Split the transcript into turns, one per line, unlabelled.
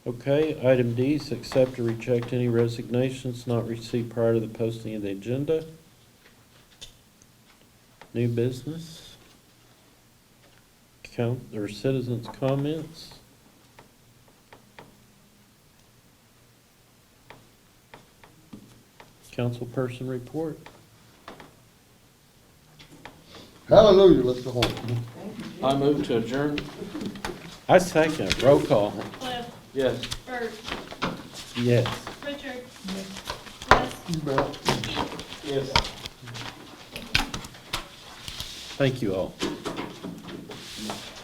Okay, item D is accept or reject any resignations not received prior to the posting of the agenda. New business. Count, or citizens' comments. Councilperson report.
Hallelujah, let's go home.
I move to adjourn.
I second, roll call.
Cliff,
Yes.
Bert,
Yes.
Richard. Wes,
You bet.
Keith.
Yes.
Thank you all.